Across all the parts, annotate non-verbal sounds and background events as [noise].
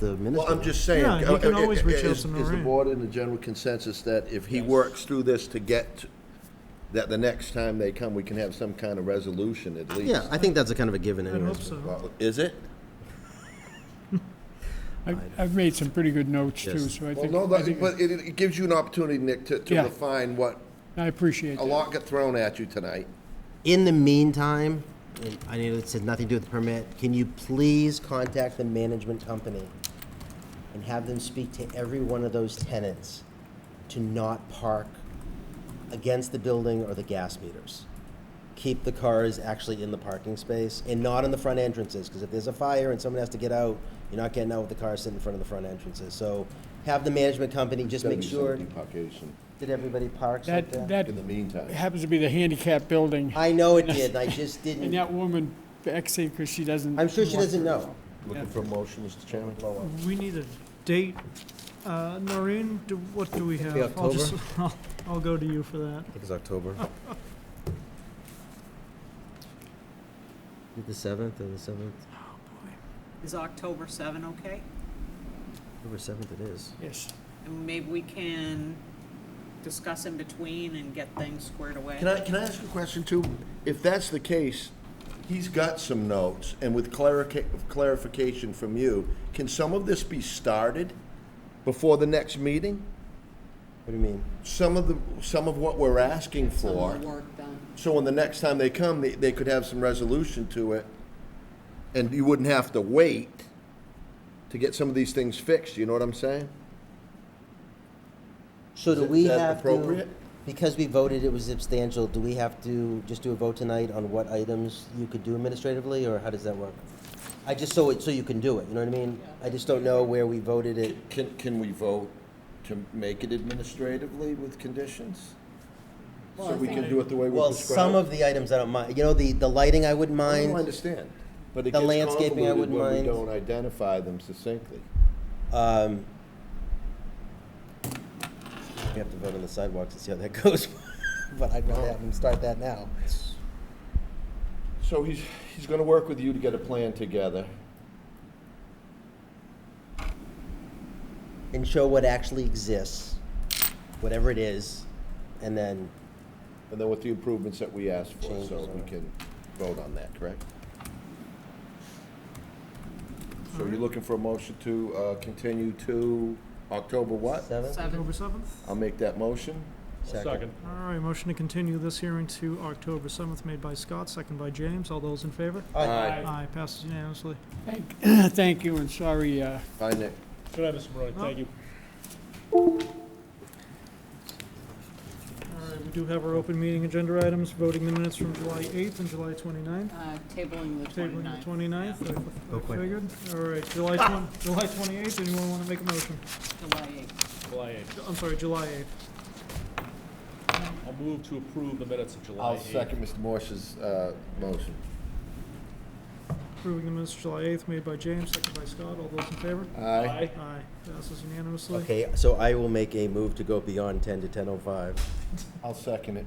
the Well, minister. I'm just saying. Yeah, you can uh, uh, always uh, reach out is- to Is the Noreen. board in the general consensus that if he works through this to get, that the next time they come, we can have some kind of resolution at least? Yeah, I think that's a kind of a given I hope anyways. so. Well, Is it? I've, I've made some pretty good notes too, Yes. so I Well, think, no, I that- think, but it, it gives you an opportunity, Nick, to, to Yeah. refine what, I appreciate a that. lot got thrown at you tonight. In the meantime, and I know this has nothing to do with the permit, can you please contact the management company and have them speak to every one of those tenants to not park against the building or the gas meters? Keep the cars actually in the parking space and not in the front entrances, because if there's a fire and someone has to get out, you're not getting out with the car sitting in front of the front entrances. So have the management company just make sure that everybody parks like That, that in the meantime. happens to be the handicap building, I know it did, and I just and didn't, that woman vexing because she doesn't. I'm sure she want doesn't her. know. Looking for a motion, Mr. Chairman? We need a date. Uh, Noreen, do- what do we have? I'll just- [laughs] I'll- I'll go to you for that. I think it's October. The seventh, or the seventh, Is October 7 okay? October seventh it is. Yes. And maybe we can discuss in between and get things squared away. Can I, can I ask a question too? If that's the case, he's got some notes, and with clarica- clarification from you, can some of this be started before the next meeting? What do you mean? Some of the, some of what we're asking for, Work done. so when the next time they come, they, they could have some resolution to it, and you wouldn't have to wait to get some of these things fixed, you know what I'm saying? So do Is it- we is that have to, appropriate? because we voted it was substantial, do we have to just do a vote tonight on what items you could do administratively, or how does that work? I just, so it, so you can do it, you know what I mean? I just don't know where we voted it. Can, can we vote to make it administratively with conditions? So we can do it the way we Well, some of the items I don't mind, you know, the, the lighting I wouldn't I mind. understand, but it The gets landscaping I convoluted wouldn't when we mind. don't identify them succinctly. Um, we have to vote on the sidewalks and see how that [laughs] goes, but I'd rather have them start that now. So he's, he's gonna work with you to get a plan together. And show what actually exists, whatever it is, and then, And then with the improvements that we asked for, so Changes, we uh, can vote on that, correct? So you're looking for a motion to, uh, continue to October what? seven? October 7. 7th? I'll make that motion. Second. All right, motion to continue this hearing to October 7th, made by Scott, second by James. All those in favor? Aye. Aye, passes unanimously. Thank, thank you, and sorry, uh, Aye, Nick. Good night, Mr. Barone. Thank you. All right, we do have our open meeting agenda items, voting the minutes from July 8th and July 29th. Uh, Tabling the Tabling the 29th. 29th, I- I quick. figured. All right, July 20 July 28th, anyone want to make a motion? July 8th. July eighth. I'm sorry, July 8th. I'll move to approve the minutes of July I'll eighth. second Mr. Morse's, uh, motion. Approving the minutes of July 8th, made by James, second by Scott. All those in favor? Aye. Aye. Aye, passes unanimously. Okay, so I will make a move to go beyond ten to ten oh five. I'll second it.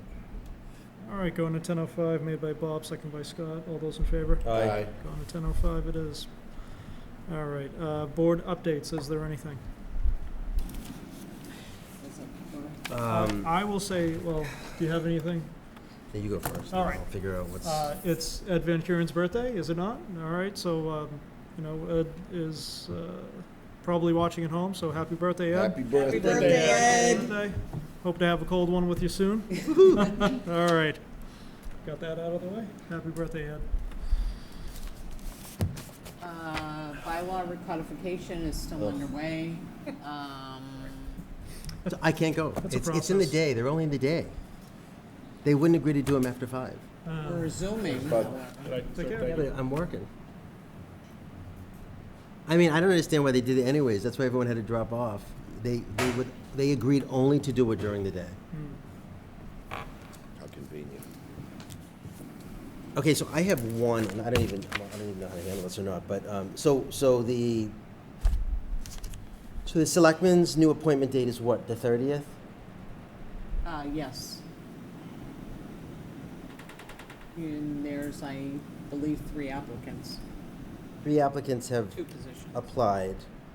All right, going to ten oh five, made by Bob, second by Scott. All those in favor? Aye. Going to ten oh five it is. All right, uh, board updates, is there anything? Is it- Um, I will say, well, do you have anything? yeah, you go first. All right. I'll figure out what's, Uh, it's Ed Van Kuren's birthday, is it not? All right, so, um, you know, Ed is, uh, probably watching at home, so happy birthday, Ed. Happy birthday. Birthday. Hope to have a cold one with you [laughs] soon. [laughs] All right. Got that out of the way. Happy birthday, Ed. Uh, Bylaw recodification is Oh. still Ugh. underway. Um, I can't go. That's a It's, it's in the process. day, they're only in the day. They wouldn't agree to do them after five. Uh, We're resuming, But- however. Good night, sir. Take care. Thank Yeah, you. but I'm working. I mean, I don't understand why they did it anyways. That's why everyone had to drop off. They, they would, they agreed only to do it during the day. How convenient. Okay, so I have one, and I don't even, I don't even know how to handle this or not, but, um, so, so the, so the selectmen's new appointment date is what, the thirtieth? Uh, yes. And there's, I believe, three applicants, Three applicants have two positions. applied.